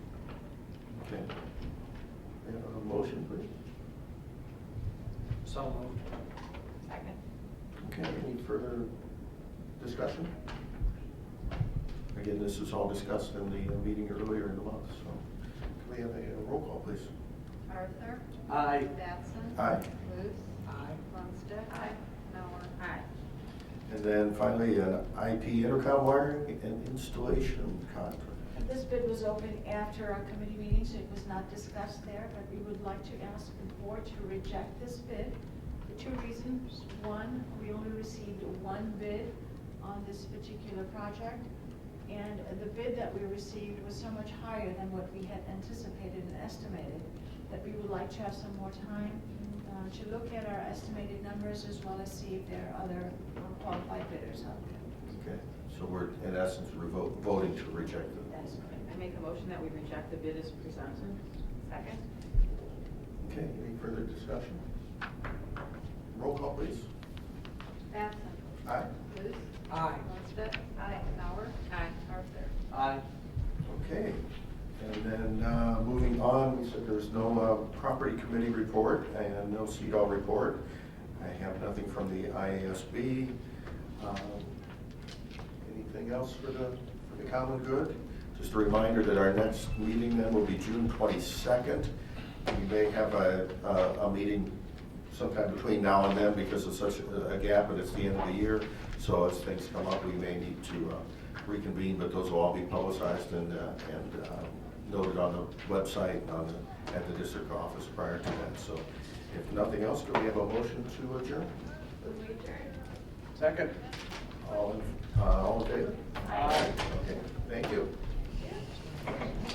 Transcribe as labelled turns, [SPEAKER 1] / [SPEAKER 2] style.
[SPEAKER 1] So moved.
[SPEAKER 2] Second.
[SPEAKER 3] Okay, any further discussion? Again, this is all discussed in the uh, meeting earlier in the month, so can we have a uh, roll call, please?
[SPEAKER 4] Arthur.
[SPEAKER 1] Aye.
[SPEAKER 4] Batson.
[SPEAKER 3] Aye.
[SPEAKER 4] Luce.
[SPEAKER 1] Aye.
[SPEAKER 4] Lundstedt.
[SPEAKER 2] Aye.
[SPEAKER 4] Mauer.
[SPEAKER 2] Aye.
[SPEAKER 3] And then finally, an IP intercom wiring and installation contract.
[SPEAKER 2] This bid was open after our committee meeting, so it was not discussed there, but we would like to ask the board to reject this bid for two reasons. One, we only received one bid on this particular project, and the bid that we received was so much higher than what we had anticipated and estimated, that we would like to have some more time uh, to look at our estimated numbers as well as see if there are other qualified bidders out there.
[SPEAKER 3] Okay, so we're in essence revo- voting to reject it.
[SPEAKER 2] That's correct.
[SPEAKER 5] I make a motion that we reject the bid as presented.
[SPEAKER 4] Second.
[SPEAKER 3] Okay, any further discussion? Roll call, please.
[SPEAKER 4] Batson.
[SPEAKER 3] Aye.
[SPEAKER 4] Luce.
[SPEAKER 1] Aye.
[SPEAKER 4] Lundstedt. Aye. Mauer.
[SPEAKER 5] Aye.
[SPEAKER 4] Arthur.
[SPEAKER 1] Aye.
[SPEAKER 3] Okay, and then uh, moving on, we said there's no uh, property committee report and no CEDAW report. I have nothing from the IASB. Um, Anything else for the, for the common good? Just a reminder that our next meeting then will be June 22nd. We may have a, a- a meeting sometime between now and then because of such a a gap, and it's the end of the year. So as things come up, we may need to uh, reconvene, but those will all be publicized and, uh, and um, noted on the website, and on the, at the district office prior to that. So if nothing else, do we have a motion to adjourn?
[SPEAKER 2] Would we adjourn?
[SPEAKER 1] Second.
[SPEAKER 3] All, in- uh, all in favor?
[SPEAKER 1] Aye.
[SPEAKER 3] Okay, thank you.